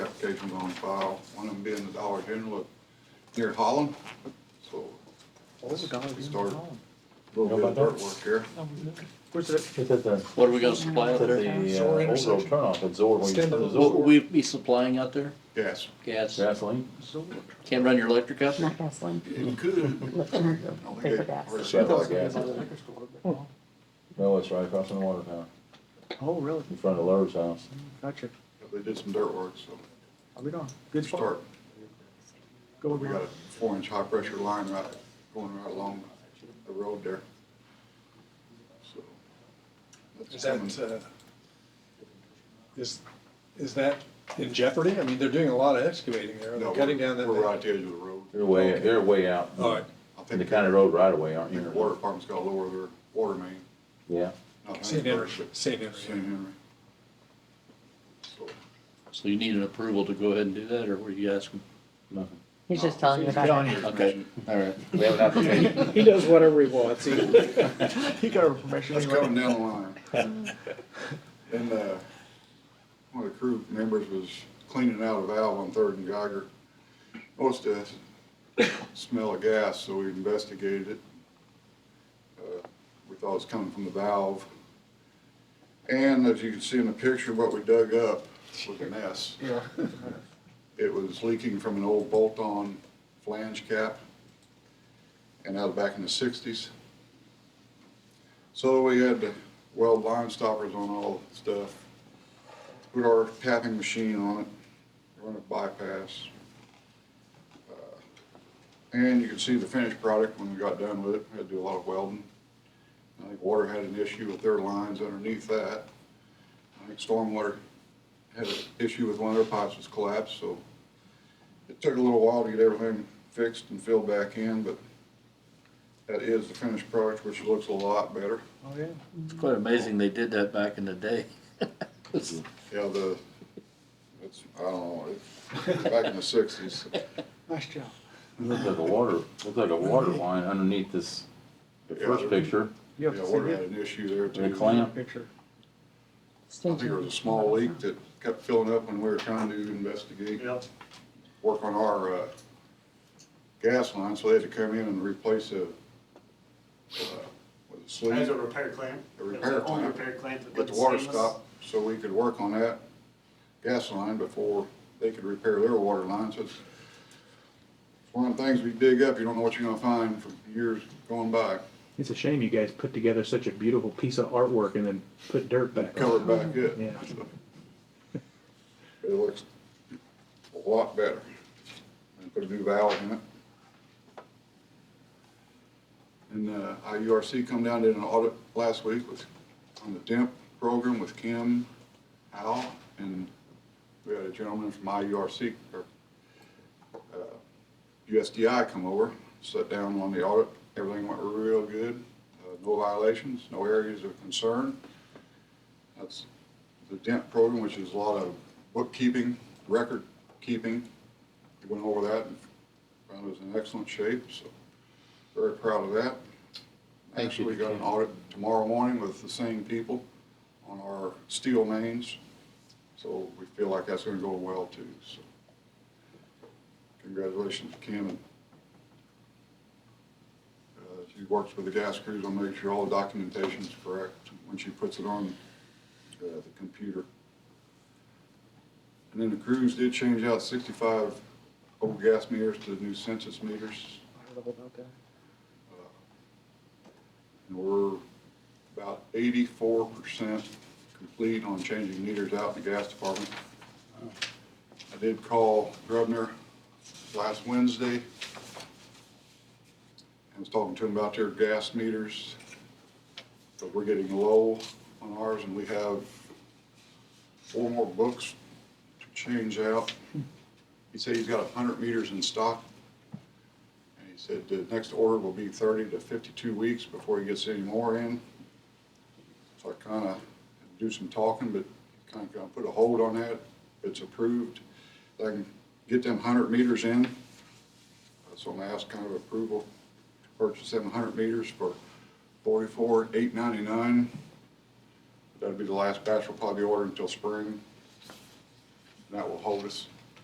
applications on file, one of them being the Dollar General near Holland, so. We started a little bit of dirt work here. Where's it? It's at the, What are we gonna supply out it's at there? the uh, Zor overall intersection. turnoff at Zor, when you turn Stand the up. What will Zor. we be supplying out there? Yes, Gas? Gasoline? Can't run your electric out there? Not gasoline, it could. liquor, I don't think paper it- gas. or it's Yeah. like- gas. No, it's right across from the water tower, Oh, really? in front of Lur's house. Gotcha. They did some dirt work, so I'll be gone. we Good spot. start, Go we got a four inch high pressure line right, going right along the road there. So that's Is that, coming. uh, is, is that in jeopardy? I mean, they're doing a lot of excavating there, No, they're cutting down that. We're right at the edge of the road. You're way, you're way out. All right. I In the think, county I road right away, aren't think the you? water department's gotta lower their water main. Yeah, not St. Henry, Huntersburg, but St. Henry. St. Henry. So, So you need an approval to go ahead and do that, or were you asking? nothing. He's just telling you about it. Okay, all right. We have an application, He does whatever he wants. He, he got a professional. That's coming down the line. And, uh, one of the crew members was cleaning out a valve on Third and Geiger. Noticed a smell of gas, so we investigated it. Uh, We thought it was coming from the valve. And as you can see in the picture, what we dug up was a mess. It was leaking from an old bolt-on flange cap and that was back in the sixties. So we had to weld line stoppers on all the stuff, put our tapping machine on it, run a bypass. Uh, And you can see the finished product when we got done with it, we had to do a lot of welding. I think water had an issue with their lines underneath that. I think stormwater had an issue with one of their pipes was collapsed, so it took a little while to get everything fixed and filled back in, but that is the finished product, which looks a lot better. Oh, yeah. It's quite amazing they did that back in the day. Yeah, the, it's, I don't know, it's back in the sixties. Nice job. it looks like a water, looks like a water line underneath this, the Yeah, first there- picture, You Yeah, have to see water had it. an issue there the too. I clamp. Picture. think there was a small leak that kept filling up when we were trying to investigate, Yep. work on our, uh, gas line, so they had to come in and replace a, uh, with a As a sleeve, repair clamp. A It was repair an old clamp. Repair clamp. that get the did water stainless. stopped, so we could work on that gas line before they could repair their water lines. It's it's one of the things we dig up, you don't know what you're gonna find from years going by. It's a shame you guys put together such a beautiful piece of artwork and then put dirt back on cover it back up. Yeah. It looks a lot better. And put a new valve in it. And, uh, IURC come down, did an audit last week with, on the DEMP program with Kim Al, and we had a gentleman from IURC, or, uh, USDI come over, sat down on the audit, everything went real good, uh, no violations, no areas of concern. That's the DENT program, which is a lot of bookkeeping, record keeping. We Went over that and found it was in excellent shape, so very proud of that. Actually, we got an audit tomorrow morning with the same people on our steel mains, so we feel like that's gonna go well too, so. Congratulations, Kim. and, uh, She works with the gas crews on making sure all the documentation's correct when she puts it on uh, the computer. And then the crews did change out sixty-five old gas meters to new census meters. Uh, I don't know about that. And we're about eighty-four percent complete on changing meters out in the gas department. Uh, I did call Grubner last Wednesday. I was talking to him about their gas meters, but we're getting low on ours, and we have four more books to change out. He said he's got hundred meters in stock, and he said the next order will be thirty to fifty-two weeks before he gets any more in. So I kinda do some talking, but kinda gonna put a hold on that. If it's approved, I can get them hundred meters in. Uh, So I'm gonna ask kind of approval to purchase them hundred meters for forty-four, eight ninety-nine. That'll be the last batch we'll probably order until spring. And that will hold us